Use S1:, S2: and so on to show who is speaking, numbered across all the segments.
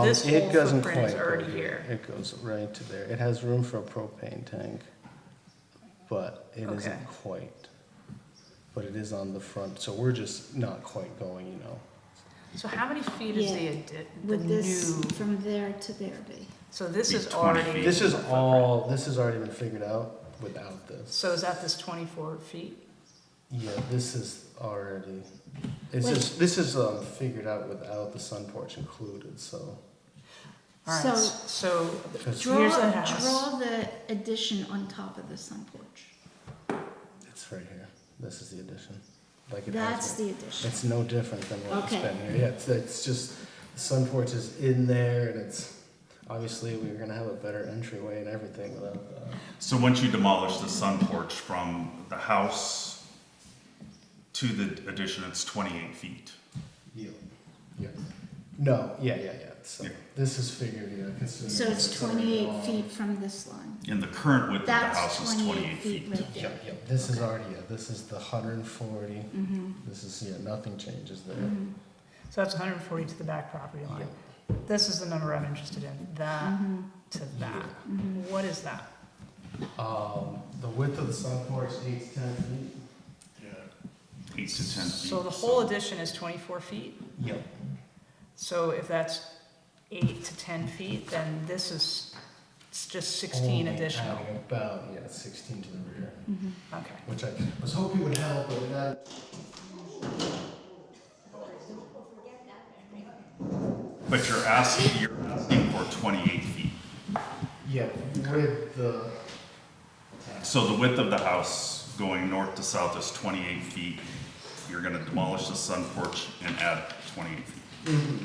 S1: Um,
S2: This
S1: it
S2: whole
S1: doesn't
S2: footprint is
S1: quite go
S2: already here.
S1: It goes right to there. It has room for a propane tank, but it
S2: Okay.
S1: isn't quite. But it is on the front, so we're just not quite going, you know.
S2: So how many feet is the,
S3: Yeah.
S2: addi- the
S3: Would this,
S2: new,
S3: from there to there be?
S2: so this
S4: Be
S2: is
S4: 20
S2: already.
S4: feet.
S1: This is all, this has already been figured out without this.
S2: So is that this twenty-four feet?
S1: Yeah, this is already, it's
S3: Wait.
S1: just, this is, um, figured out without the sun porch included, so.
S2: Alright,
S3: So-
S2: s- so,
S1: 'cause
S3: Draw,
S2: Here's the house.
S3: draw the addition on top of the sun porch.
S1: It's right here. This is the addition. Like it has
S3: That's
S1: been.
S3: the addition.
S1: It's no different than what it's
S3: Okay.
S1: been here. Yeah, it's, it's just the sun porch is in there, and it's obviously we were gonna have a better entryway and everything without that.
S4: So once you demolish the sun porch from the house to the addition, it's twenty-eight feet.
S1: Yeah. Yeah. No. Yeah. Yeah. Yeah. So
S4: Yeah.
S1: this is figured. Yeah. considering
S3: So it's
S1: already
S3: twenty-eight
S1: all-
S3: feet from this line.
S4: And the current width of the
S3: That's
S4: house is
S3: twenty-eight
S4: twenty-eight
S3: feet
S4: feet.
S3: right
S1: Yeah.
S3: there.
S1: Yeah. This is already. Yeah. This is the hundred and forty.
S3: Mm-hmm,
S1: This is yeah. Nothing changes there.
S3: mm-hmm,
S2: so that's hundred and forty to the back property line. This is the number I'm interested in, that
S3: mm-hmm,
S2: to that.
S3: mm-hmm.
S2: What is that?
S1: Um, the width of the sun porch needs ten feet.
S4: Eight to ten feet.
S2: So the whole addition is twenty-four feet?
S1: Yep.
S2: So if that's eight to ten feet, then this is, it's just sixteen
S1: Only
S2: additional.
S1: adding About yeah, sixteen to the rear.
S2: Okay.
S1: which I was hoping would help, but that.
S4: But you're asking, you're asking for twenty-eight feet.
S1: Yeah, with the.
S4: So the width of the house going north to south is twenty-eight feet. You're gonna demolish the sun porch and add twenty-eight feet.
S5: Mm-hmm.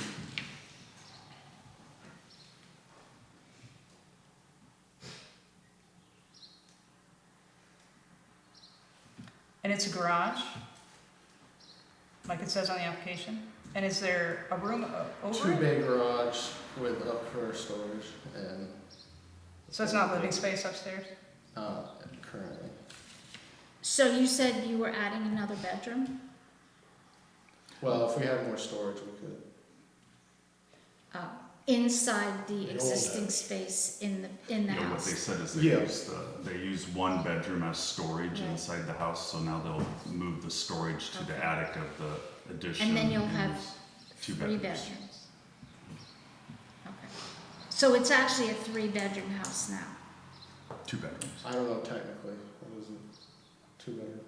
S2: And it's a garage? Like it says on the application? And is there a room o- over
S1: Two
S2: it?
S1: bay garage with up for storage and.
S2: So it's not living space upstairs?
S1: Uh, currently.
S3: So you said you were adding another bedroom?
S1: Well, if we had more storage, we could.
S3: Uh, Inside
S1: The
S3: the
S1: old
S3: existing
S1: house.
S3: space in the, in the
S4: Yeah, what they
S3: house?
S4: said is they
S1: Yeah.
S4: used, uh, they used one bedroom as storage
S3: Right.
S4: inside the house, so now they'll move the storage to the
S3: Okay.
S4: attic of the addition.
S3: And then you'll have
S4: use two
S3: three bedrooms? Okay. So it's actually a three-bedroom house now?
S4: Two bedrooms.
S1: I don't know technically, it wasn't two bedroom.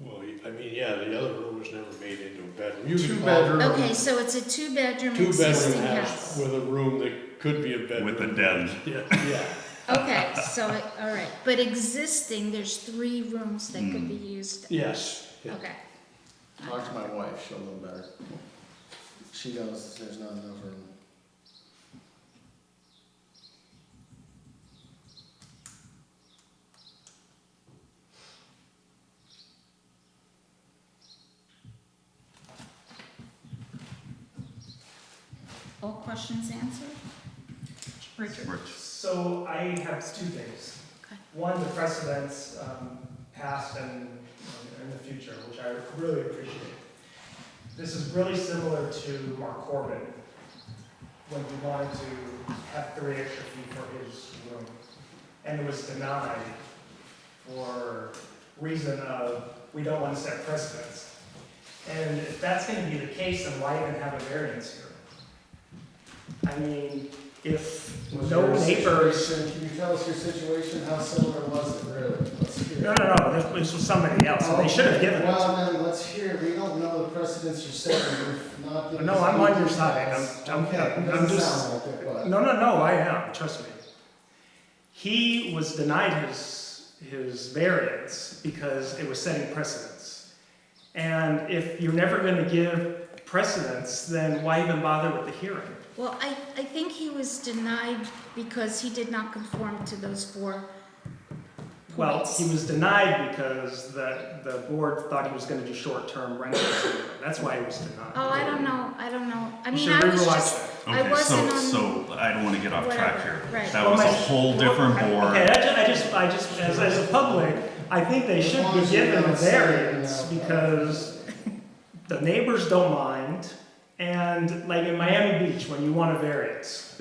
S6: Well, y- I mean, yeah, the other room was never made into a bedroom. You could
S1: Two
S6: call
S1: bedroom.
S3: Okay, so it's a two-bedroom
S6: it a Two-bedroom
S3: existing
S6: house
S3: house?
S6: with a room that could be a bedroom.
S4: With a den.
S6: Yeah, yeah.
S3: Okay, so, it- all right, but existing, there's three rooms that could be used?
S6: yes. yeah.
S3: Okay.
S1: Talk to my wife, she'll know better. She knows there's not enough room.
S3: All questions answered? Richard?
S4: Rich.
S5: So I have two things.
S3: Okay.
S5: One, the precedents um, past and um, in the future, which I really appreciate. This is really similar to Mark Corbin when he wanted to have three extra feet for his room, and it was denied for reason of we don't want to set precedents. And if that's going to be the case, then why even have a variance here? I mean, if
S1: Was
S5: no
S1: your
S5: neighbors
S1: situation- Can you tell us your situation, how similar was it really? Let's hear it.
S5: No, no, no, this, this was somebody else, and they should have given it.
S1: Well, then, let's hear, it. we don't know the precedents you're setting, we've not. been-
S5: No, I'm on your side, I'm- I'm-
S1: Okay, it
S5: I'm
S1: doesn't
S5: just-
S1: sound like it, but-
S5: No, no, no, I am, trust me. He was denied his, his variance because it was setting precedence. And if you're never gonna give precedence, then why even bother with the hearing?
S3: Well, I, I think he was denied because he did not conform to those four
S5: Well,
S3: points.
S5: he was denied because the, the board thought he was gonna do short-term rentals. That's why he was denied.
S3: Oh, I don't know, I don't know, I
S5: You
S3: mean,
S5: should
S3: I was
S5: rewatch
S3: just,
S5: that.
S3: I
S4: Okay,
S3: wasn't
S4: so,
S3: on-
S4: so I don't wanna get off track
S3: Whatever,
S4: here.
S3: right.
S4: That was a
S5: Well, my-
S4: whole different
S5: Okay,
S4: board.
S5: I just, I just, I just, as, as a public, I think they should be given a variance because the neighbors don't mind, And like in Miami Beach, when you want a variance,